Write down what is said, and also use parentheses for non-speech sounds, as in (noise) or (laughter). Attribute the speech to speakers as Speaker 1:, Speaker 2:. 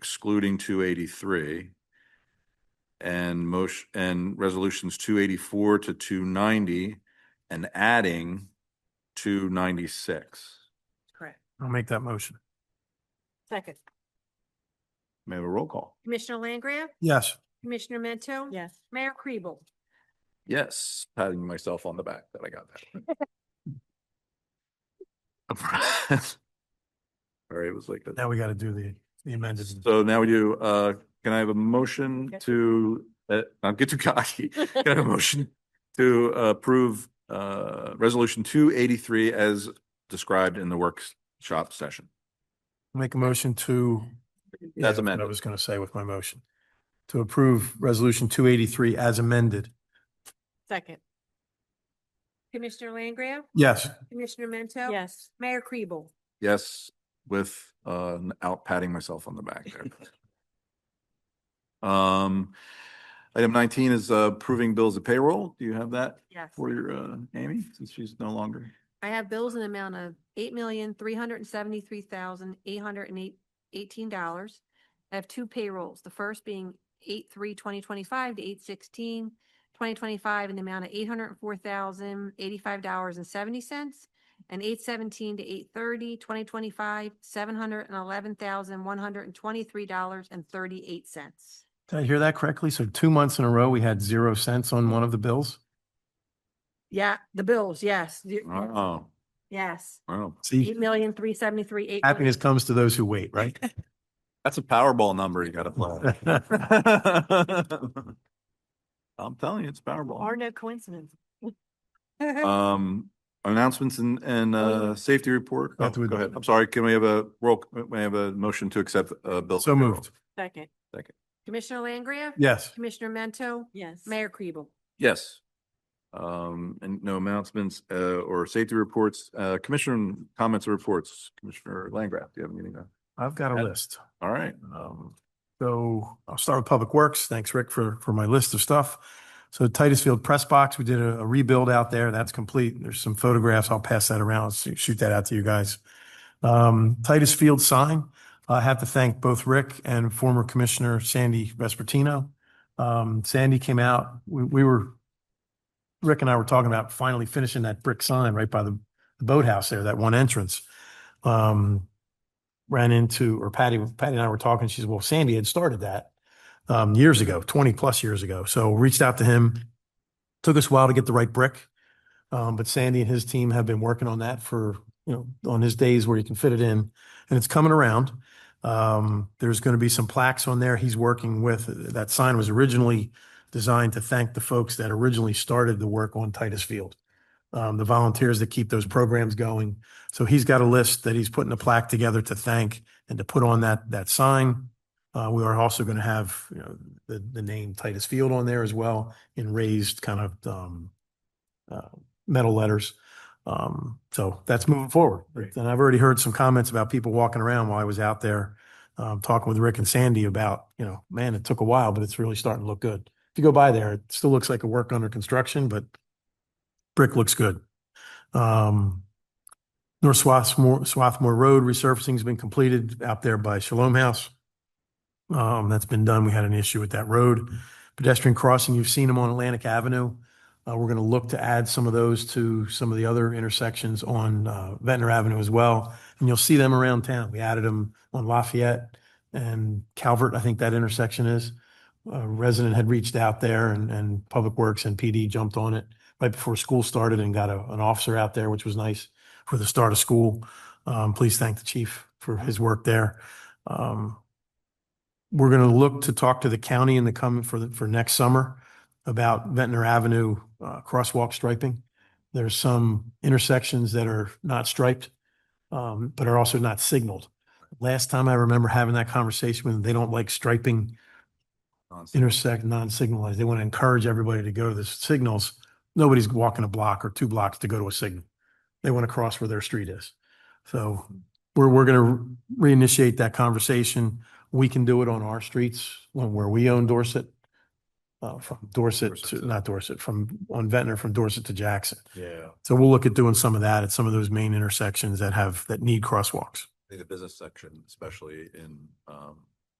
Speaker 1: excluding two eighty-three. And motion, and resolutions two eighty-four to two ninety and adding two ninety-six.
Speaker 2: Correct.
Speaker 3: I'll make that motion.
Speaker 2: Second.
Speaker 1: May I have a roll call?
Speaker 4: Commissioner Langgraf?
Speaker 3: Yes,
Speaker 4: Commissioner Mento?
Speaker 2: Yes.
Speaker 4: Mayor (laughs) Kribel?
Speaker 1: Yes, patting myself on the back that I got (laughs) that. All right, it was like that.
Speaker 3: now we got to do the the amended.
Speaker 1: So now we do, uh, can I have a motion
Speaker 2: Okay.
Speaker 1: to, uh, not get too cocky. Can I have a motion to approve, uh, resolution two eighty-three as described in the workshop session?
Speaker 3: Make a motion to. Yeah, what I
Speaker 1: amended.
Speaker 3: was going to say with my motion. To approve resolution two eighty-three as amended.
Speaker 2: Second.
Speaker 4: Commissioner Langgraf?
Speaker 3: Yes,
Speaker 4: Commissioner Mento?
Speaker 2: Yes.
Speaker 4: Mayor Kribel?
Speaker 1: Yes, with, uh, out patting myself on the back there. Um, item nineteen is uh, approving bills of payroll. Do you have that
Speaker 2: Yes.
Speaker 1: for your, uh, Amy, since she's no longer?
Speaker 4: I have bills in the amount of eight million, three hundred and seventy-three thousand, eight hundred and eight, eighteen dollars. I have two payrolls, the first being eight, three, twenty twenty-five to eight, sixteen, twenty twenty-five in the amount of eight hundred and four thousand, eighty-five dollars and seventy cents. And eight seventeen to eight thirty, twenty twenty-five, seven hundred and eleven thousand, one hundred and twenty-three dollars and thirty-eight cents.
Speaker 3: did I hear that correctly? So two months in a row, we had zero cents on one of the bills?
Speaker 4: Yeah, the bills, yes, the-
Speaker 1: Oh,
Speaker 4: yes,
Speaker 1: wow.
Speaker 3: See,
Speaker 4: eight million, three seventy-three, eight.
Speaker 3: happiness comes to those who wait, right?
Speaker 1: That's a Powerball number you gotta play. (laughs) I'm telling you, it's
Speaker 2: Are
Speaker 1: Powerball.
Speaker 2: no coincidence.
Speaker 4: (laughs)
Speaker 1: Um, announcements and, and, uh, safety report.
Speaker 3: Not
Speaker 1: Oh,
Speaker 3: to-
Speaker 1: Go ahead. I'm sorry. Can we have a roll, can we have a motion to accept, uh, bill?
Speaker 3: So moved.
Speaker 2: Second.
Speaker 4: Commissioner Langria?
Speaker 3: Yes,
Speaker 4: Commissioner Mento?
Speaker 2: Yes.
Speaker 4: Mayor Kribel?
Speaker 1: Yes. Um, and no announcements, uh, or safety reports, uh, commissioner comments or reports. Commissioner Langraff, do you have anything? to-
Speaker 3: I've got a list.
Speaker 1: All right.
Speaker 3: Um, so I'll start with Public Works. Thanks, Rick, for, for my list of stuff. So Titusfield Press Box, we did a a rebuild out there. That's complete. There's some photographs. I'll pass that around, so- shoot that out to you guys. Um, Titusfield sign, I have to thank both Rick and former Commissioner Sandy Vespertino. Um, Sandy came out, we, we were, Rick and I were talking about finally finishing that brick sign right by the boathouse there, that one entrance. Um, ran into, or Patty, Patty and I were talking, she said, well, Sandy had started that um, years ago, twenty plus years ago. So reached out to him. Took us a while to get the right brick. Um, but Sandy and his team have been working on that for, you know, on his days where he can fit it in and it's coming around. Um, there's going to be some plaques on there. He's working with, that sign was originally designed to thank the folks that originally started the work on Titus Field. Um, the volunteers that keep those programs going. So he's got a list that he's putting a plaque together to thank and to put on that, that sign. Uh, we are also going to have, you know, the, the name Titus Field on there as well in raised kind of, um, uh, metal letters. Um, so that's moving forward. And I've already heard some comments about people walking around while I was out there, um, talking with Rick and Sandy about, you know, man, it took a while, but it's really starting to look good. If you go by there, it still looks like a work under construction, but brick looks good. Um, North Swarthmore, Swarthmore Road resurfacing's been completed out there by Shalom House. Um, that's been done. We had an issue with that road. Pedestrian crossing, you've seen them on Atlantic Avenue. Uh, we're gonna look to add some of those to some of the other intersections on, uh, Ventnor Avenue as well. And you'll see them around town. We added them on Lafayette and Calvert, I think that intersection is. A resident had reached out there and, and Public Works and PD jumped on it right before school started and got a, an officer out there, which was nice for the start of school. Um, please thank the chief for his work there. Um, we're going to look to talk to the county in the coming for the, for next summer about Ventnor Avenue, uh, crosswalk striping. There's some intersections that are not striped, um, but are also not signaled. Last time I remember having that conversation with them, they don't like striping intersect non-signalized. They want to encourage everybody to go to the signals. Nobody's walking a block or two blocks to go to a signal. They want to cross where their street is. So we're, we're going to reinitiate that conversation. We can do it on our streets when, where we own Dorset. Uh, from Dorset to,
Speaker 1: Dorset.
Speaker 3: not Dorset, from, on Ventnor, from Dorset to Jackson.
Speaker 1: Yeah,
Speaker 3: So we'll look at doing some of that at some of those main intersections that have, that need crosswalks.
Speaker 1: the business section, especially in, um,